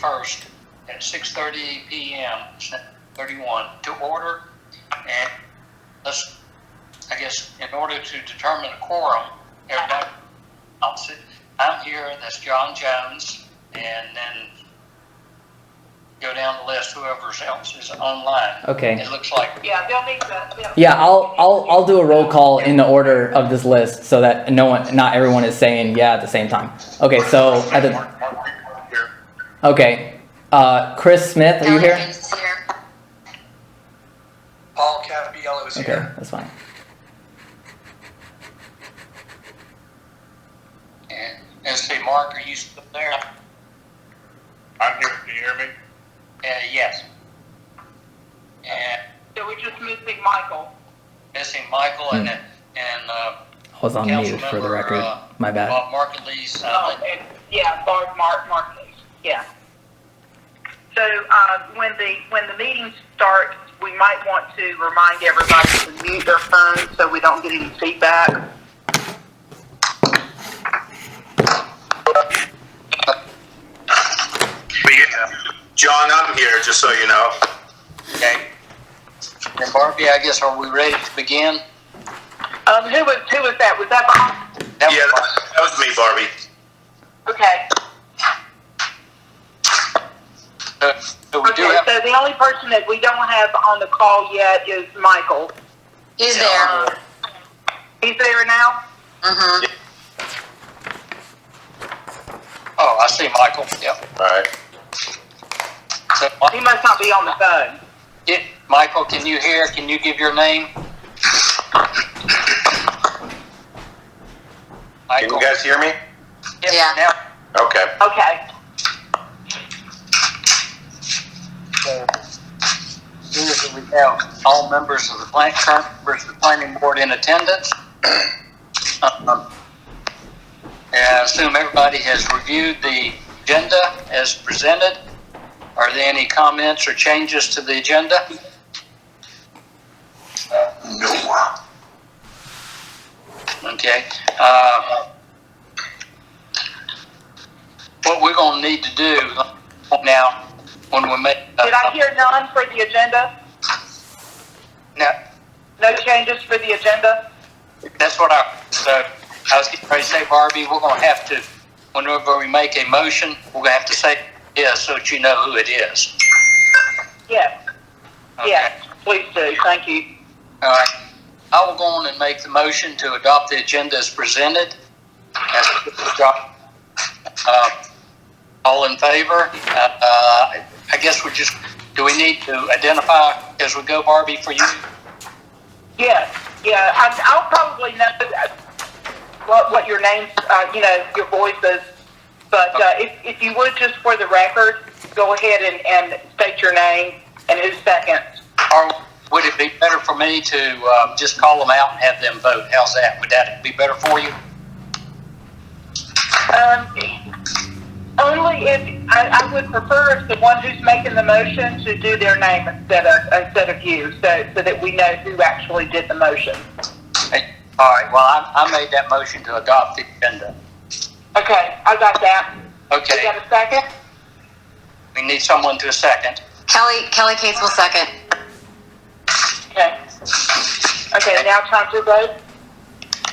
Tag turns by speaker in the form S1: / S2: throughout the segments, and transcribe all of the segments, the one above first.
S1: first at six thirty PM, thirty-one, to order. And let's, I guess, in order to determine a quorum, everybody, I'll sit, I'm here, that's John Jones, and then go down the list, whoever else is online.
S2: Okay.
S1: It looks like
S3: Yeah, they'll need to. they'll-
S2: Yeah, I'll, I'll, I'll do a roll call in the order of this list so that no one, not everyone is saying yeah at the same time. Okay, so at the,
S1: Mark- Mark Wickman here.
S2: okay, uh, Chris Smith, are you here?
S4: Donovan's here.
S5: Paul Capiello is
S2: Okay,
S5: here.
S2: that's fine.
S1: And, and say, Mark, are you still there?
S6: I'm here, can you hear me?
S1: Uh, yes. And
S3: So we're just missing Michael.
S1: missing Michael and, and, uh,
S2: I was on mute for the
S1: Councilmember,
S2: record.
S1: uh,
S2: My bad.
S1: Bob Markleese,
S3: Oh,
S1: uh,
S3: and, yeah, Bart Mark Martinez, yeah. So, uh, when the, when the meeting starts, we might want to remind everybody to mute their phones so we don't get any feedback.
S6: But yeah, John, I'm here, just so you know.
S1: okay. And Barbie, I guess, are we ready to begin?
S3: Um, who was, who was that? Was that Bob?
S1: That was
S6: Yeah, that that was me, Barbie.
S3: Okay.
S1: Barbie. So we do
S3: Okay,
S1: have,
S3: so the only person that we don't have on the call yet is Michael. Um,
S4: He's there.
S3: He's there now?
S4: Mm-hmm.
S1: oh, I see Michael, yep.
S6: Alright.
S1: So,
S3: He
S1: Mi-
S3: must not be on the phone.
S1: yeah, Michael, can you hear, can you give your name?
S6: Can
S1: Michael,
S6: you guys hear me?
S4: Yeah.
S1: now,
S6: Okay.
S3: Okay.
S1: So, Here is we have all members of the plan, current members of the planning board in attendance. Um, And I assume everybody has reviewed the agenda as presented. Are there any comments or changes to the agenda? No. Okay. uh, What we're gonna need to do now, when we make. uh,
S3: Did I hear none for the agenda?
S1: Now,
S3: No changes for the agenda?
S1: That's what I, so I was getting ready to say, Barbie, we're gonna have to, whenever we make a motion, we're gonna have to say, yeah, so that you know who it is.
S3: Yes.
S1: Okay?
S3: Yes, please do, thank you.
S1: All right. I will go on and make the motion to adopt the agenda as presented. That's- uh, All in favor? Uh, uh, I guess we just, do we need to identify as we go, Barbie, for you?
S3: Yes, yeah, I, I'll probably know uh, what, what your names, uh, you know, your voices, but, uh, if, if you would, just for the record, go ahead and, and state your name and who's second.
S1: Or would it be better for me to uh, just call them out and have them vote? How's that? Would that be better for you?
S3: Um, only if, I, I would prefer if the one who's making the motion to do their name instead of, instead of you, so, so that we know who actually did the motion.
S1: Hey, All right, well, I, I made that motion to adopt the agenda.
S3: Okay, I got that. You
S1: Okay,
S3: got a second?
S1: we need someone to a second.
S4: Kelly Kelly Cates will second.
S3: Okay. Okay, now time to vote.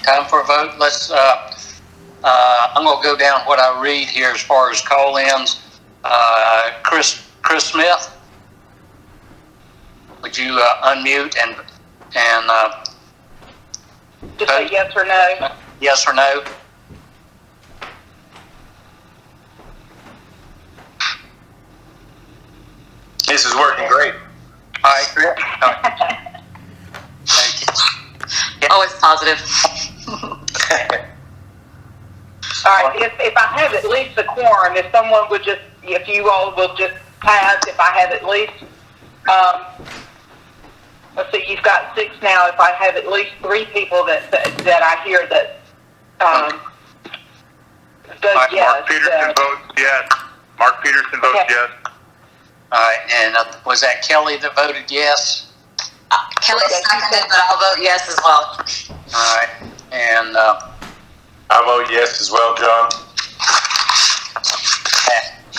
S1: Time for a vote. Let's, uh, uh, I'm gonna go down what I read here as far as call-ins. Uh, Chris, Chris Smith? Would you uh, unmute and, and, uh,
S3: Just say yes or no.
S1: yes or no?
S6: This is working great.
S1: All right, Chris? All right. Thank you.
S4: Always positive.
S3: All right, if, if I have at least a quorum, if someone would just, if you all will just pass, if I have at least, um, let's see, you've got six now, if I have at least three people that, that, that I hear that, um, vote
S6: Mark
S3: yes.
S6: Peterson
S3: uh,
S6: votes yes. Mark Peterson votes
S3: Okay.
S6: yes.
S1: All right, and uh, was that Kelly that voted yes?
S4: Uh, Kelly seconded, but I'll vote yes as well.
S1: All right, and, uh,
S6: I vote yes as well, John.